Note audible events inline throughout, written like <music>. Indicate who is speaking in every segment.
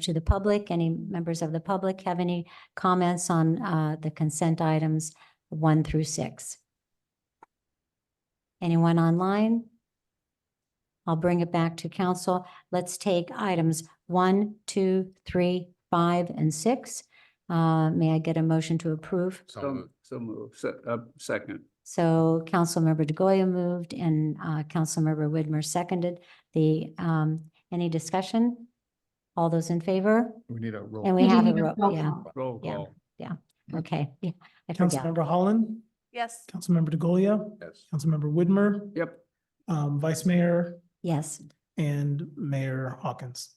Speaker 1: to the public. Any members of the public have any comments on uh, the consent items one through six? Anyone online? I'll bring it back to council. Let's take items one, two, three, five, and six. Uh, May I get a motion to approve?
Speaker 2: So
Speaker 3: So,
Speaker 2: moved.
Speaker 3: so moved, Se- uh, second,
Speaker 1: So Councilmember DeGoya moved and uh, Councilmember Widmer seconded the, um, any discussion? All those in favor?
Speaker 2: We need a roll.
Speaker 1: And we
Speaker 4: We
Speaker 1: have a,
Speaker 4: didn't
Speaker 1: ro-
Speaker 4: have roll
Speaker 1: yeah,
Speaker 3: roll
Speaker 1: Yeah.
Speaker 3: call,
Speaker 1: okay, yeah, I forgot.
Speaker 5: Councilmember Holland,
Speaker 4: Yes.
Speaker 5: Councilmember DeGolia,
Speaker 2: Yes.
Speaker 5: Councilmember Widmer,
Speaker 3: yep,
Speaker 5: um, Vice Mayor
Speaker 1: Yes,
Speaker 5: and Mayor Hawkins.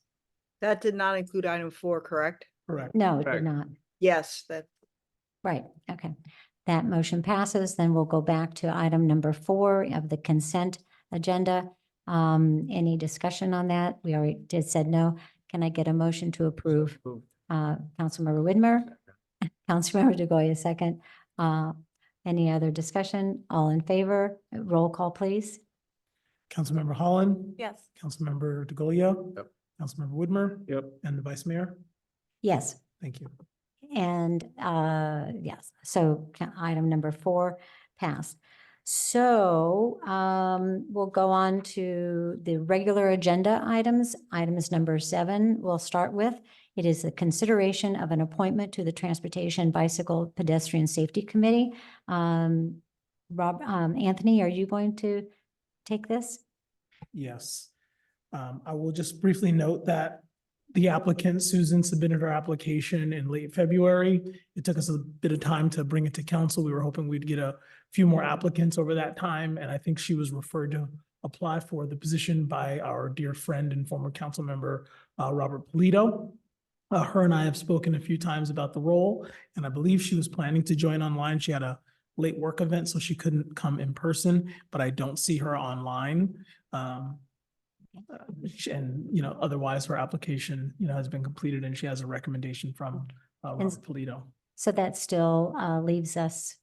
Speaker 4: That did not include item four, correct?
Speaker 5: Correct.
Speaker 1: no, it did
Speaker 3: Correct.
Speaker 1: not.
Speaker 4: Yes, that,
Speaker 1: Right, okay. That motion passes, then we'll go back to item number four of the consent agenda. Um, any discussion on that? We already did said no. Can I get a motion to approve?
Speaker 3: Moved.
Speaker 1: Uh, Councilmember Widmer, <laughs> Councilmember DeGoya second. Uh, any other discussion? All in favor? Roll call, please.
Speaker 5: Councilmember Holland.
Speaker 4: yes.
Speaker 5: Councilmember DeGolia.
Speaker 2: Yep.
Speaker 5: Councilmember Widmer
Speaker 3: yep,
Speaker 5: and the Vice Mayor.
Speaker 1: Yes.
Speaker 5: Thank you.
Speaker 1: And uh, yes, so ca- item number four passed. So um, we'll go on to the regular agenda items. Items number seven, we'll start with. It is the consideration of an appointment to the Transportation Bicycle Pedestrian Safety Committee. Um, Rob, um, Anthony, are you going to take this?
Speaker 5: Yes. Um, I will just briefly note that the applicant, Susan, submitted her application in late February. It took us a bit of time to bring it to council. We were hoping we'd get a few more applicants over that time, and I think she was referred to apply for the position by our dear friend and former council member, uh, Robert Polito. Uh, her and I have spoken a few times about the role, and I believe she was planning to join online. She had a late work event, so she couldn't come in person, but I don't see her online. Um, uh, sh- and, you know, otherwise her application, you know, has been completed and she has a recommendation from, uh,
Speaker 1: And-
Speaker 5: Robert Polito.
Speaker 1: So that still uh, leaves us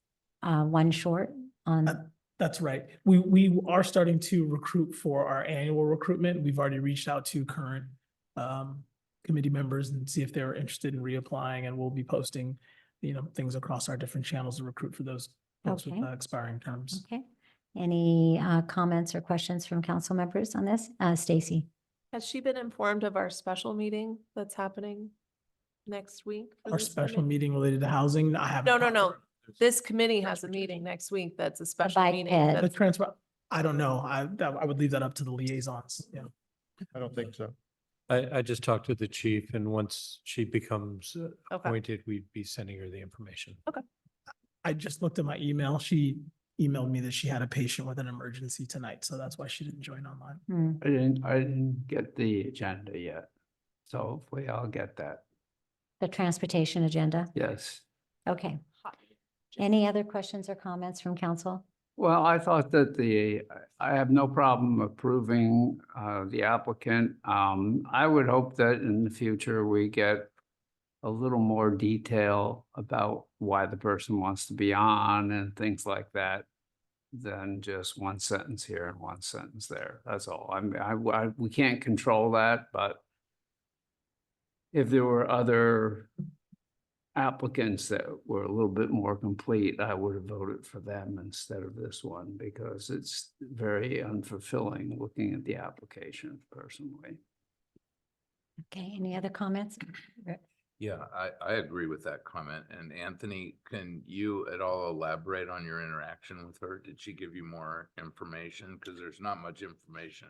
Speaker 1: uh, one short on.
Speaker 5: Uh, That's right. We, we are starting to recruit for our annual recruitment. We've already reached out to current, um, committee members and see if they're interested in reapplying and we'll be posting, you know, things across our different channels to recruit for those folks with
Speaker 1: Okay.
Speaker 5: uh, expiring terms.
Speaker 1: Okay. Any uh, comments or questions from council members on this? Uh, Stacy?
Speaker 6: Has she been informed of our special meeting that's happening next week? for
Speaker 5: Our
Speaker 6: this
Speaker 5: special
Speaker 6: commi-
Speaker 5: meeting related to housing, I haven't.
Speaker 6: No, no,
Speaker 5: talked to
Speaker 6: no.
Speaker 5: her.
Speaker 6: This committee has a meeting next week that's a special
Speaker 1: bike
Speaker 6: meeting.
Speaker 1: ped.
Speaker 5: The
Speaker 6: that's-
Speaker 5: transfer, I don't know. I, that, I would leave that up to the liaisons, yeah.
Speaker 2: I don't think so.
Speaker 7: I, I just talked to the chief and once she becomes uh,
Speaker 6: Okay,
Speaker 7: appointed, we'd be sending her the information.
Speaker 5: I just looked at my email. She emailed me that she had a patient with an emergency tonight, so that's why she didn't join online.
Speaker 1: Hmm,
Speaker 3: I didn't, I didn't get the agenda yet, so hopefully I'll get that,
Speaker 1: The transportation agenda?
Speaker 3: yes.
Speaker 1: Okay. Any other questions or comments from council?
Speaker 3: Well, I thought that the, I have no problem approving uh, the applicant. Um, I would hope that in the future we get a little more detail about why the person wants to be on and things like that than just one sentence here and one sentence there. That's all. I mean, I, I, we can't control that, but if there were other applicants that were a little bit more complete, I would have voted for them instead of this one because it's very unfulfilling looking at the application personally.
Speaker 1: Okay, any other comments?
Speaker 2: Yeah, I, I agree with that comment. And Anthony, can you at all elaborate on your interaction with her? Did she give you more information? Because there's not much information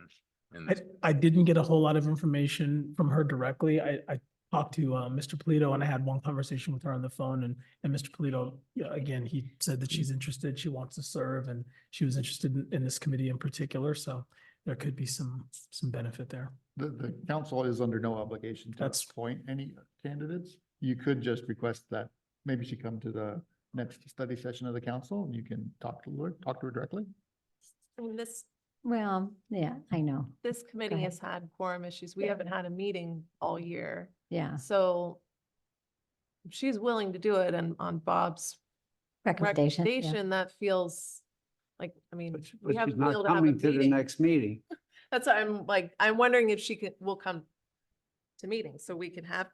Speaker 2: in
Speaker 5: I,
Speaker 2: this.
Speaker 5: I didn't get a whole lot of information from her directly. I, I talked to, uh, Mr. Polito and I had one conversation with her on the phone and, and Mr. Polito, yeah, again, he said that she's interested, she wants to serve and she was interested in, in this committee in particular, so there could be some, some benefit there.
Speaker 8: The, the council is under no obligation to
Speaker 5: That's-
Speaker 8: appoint any candidates. You could just request that maybe she come to the next study session of the council and you can talk to her, talk to her directly.
Speaker 6: I mean, this,
Speaker 1: Well, yeah, I know.
Speaker 6: this committee
Speaker 1: ahead.
Speaker 6: has had quorum issues. We haven't had a meeting all year.
Speaker 1: Yeah,
Speaker 6: So if she's willing to do it and on Bob's
Speaker 1: recommendation. yeah.
Speaker 6: recommendation, that feels like, I mean,
Speaker 3: But
Speaker 6: we
Speaker 3: but
Speaker 6: have
Speaker 3: she's
Speaker 6: to be
Speaker 3: not
Speaker 6: able to have a
Speaker 3: coming to the
Speaker 6: meeting.
Speaker 3: next meeting.
Speaker 6: That's why I'm like, I'm wondering if she can, will come to meetings, so we can have